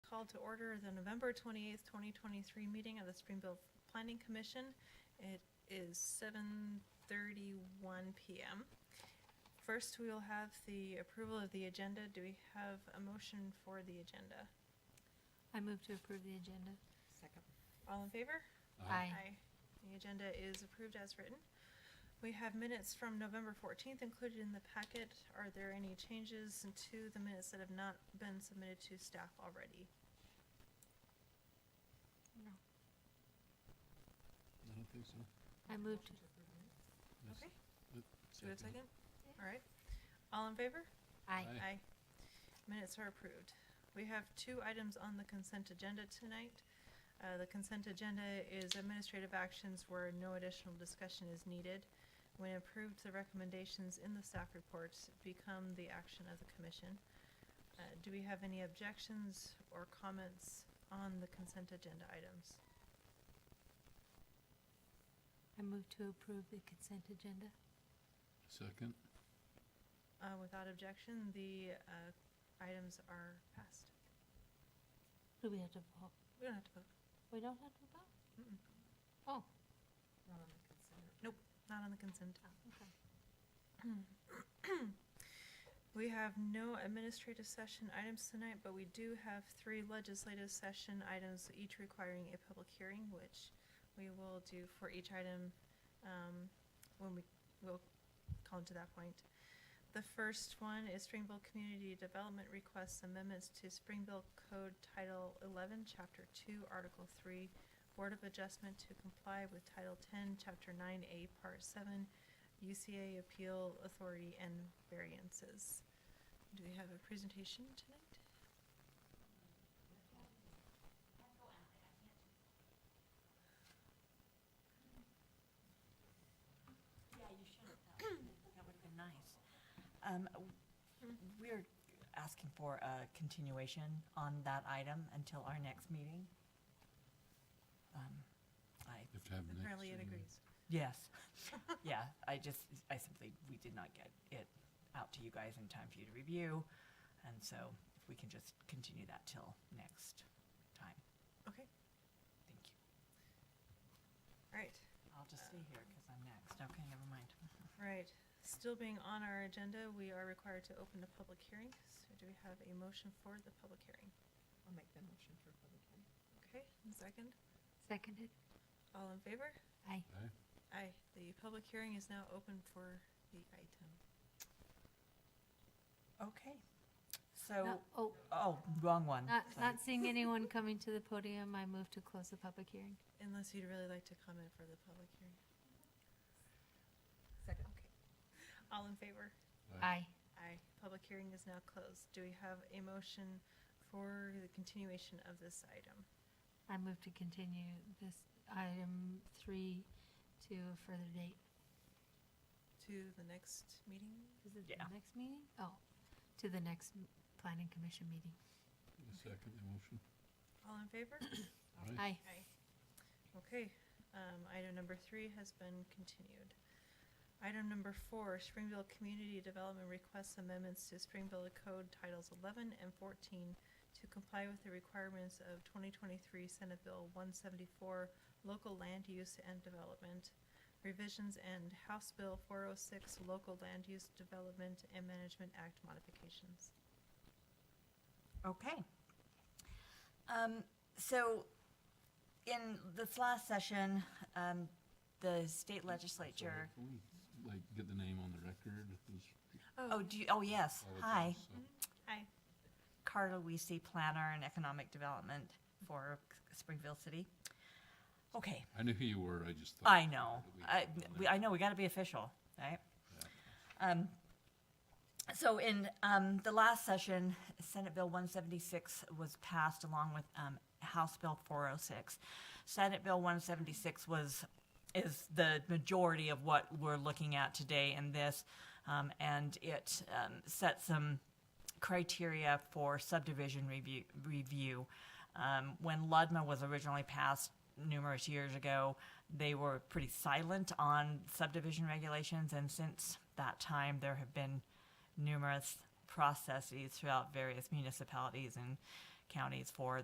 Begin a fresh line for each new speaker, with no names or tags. called to order the November 28th, 2023 meeting of the Springfield Planning Commission. It is 7:31 PM. First, we will have the approval of the agenda. Do we have a motion for the agenda?
I move to approve the agenda.
Second.
All in favor?
Aye.
The agenda is approved as written. We have minutes from November 14th included in the packet. Are there any changes to the minutes that have not been submitted to staff already?
I don't think so.
I moved, to-
Yes.
Okay. Do
Yep,
we have a second?
Yeah.
All right. All in favor?
aye.
Aye.
Minutes are approved. We have two items on the consent agenda tonight. Uh, the consent agenda is administrative actions where no additional discussion is needed. When approved, the recommendations in the staff reports become the action of the commission. Uh, do we have any objections or comments on the consent agenda items?
I move to approve the consent agenda.
Second,
Uh, without objection, the, uh, items are passed.
Do we have to vote?
We don't have to vote.
We don't have to vote?
Mm-mm.
Oh,
Not on the consent.
Not on the consent.
okay.
We have no administrative session items tonight, but we do have three legislative session items, each requiring a public hearing, which we will do for each item, um, when we, we'll come to that point. The first one is Springville Community Development requests amendments to Springville Code Title eleven, Chapter two, Article three, Board of Adjustment to comply with Title ten, Chapter nine A, Part seven, UCA Appeal Authority and variances. Do we have a presentation tonight?
Yeah, you should have. That would have been nice. Um, w- We're asking for a continuation on that item until our next meeting. Um, I,
if to have next.
Apparently it
and
agrees.
yes, yeah, I just, I simply, we did not get it out to you guys in time for you to review. And so if we can just continue that till next time,
Okay,
thank you.
right,
I'll just stay here because I'm next. Okay, never mind.
right. Still being on our agenda, we are required to open the public hearing. So do we have a motion for the public hearing?
I'll make the motion for public hearing.
Okay, and second,
Seconded?
all in favor?
Aye.
Aye.
Aye, the public hearing is now open for the item.
Okay, so,
Not- Oh,
oh, wrong one.
not,
Sorry.
not seeing anyone coming to the podium, I move to close the public hearing.
Unless you'd really like to comment for the public hearing.
Second.
All in favor?
Aye.
Aye.
Aye. Public hearing is now closed. Do we have a motion for the continuation of this item?
I move to continue this item three to a further date.
To the next meeting?
Is it
Yeah.
the next meeting? Oh, to the next m- planning commission meeting.
I Second the motion.
All in favor?
Aye.
Aye.
Aye. Okay, um, item number three has been continued. Item number four, Springville Community Development requests amendments to Springville Code Titles eleven and fourteen to comply with the requirements of twenty twenty-three Senate Bill one seventy-four, local land use and development, revisions and House Bill four oh six, local land use development and management act modifications.
Okay. Um, so, in this last session, um, the state legislature,
Sorry, can we, Like, get the name on the record. It's-
oh, do you, oh, yes, hi,
apologize, so-
Aye.
Carla Weesey, Planner and Economic Development for Springville City. Okay,
I knew who you were, I just thought.
I know,
that we
I,
had it on
we-
there.
I know, we gotta be official, right? Um, So in um, the last session, Senate Bill 176 was passed along with um, House Bill 406. Senate Bill 176 was, is the majority of what we're looking at today in this, um, and it um, set some criteria for subdivision review. review. Um, When Ludma was originally passed numerous years ago, they were pretty silent on subdivision regulations, and since that time, there have been numerous processes throughout various municipalities and counties for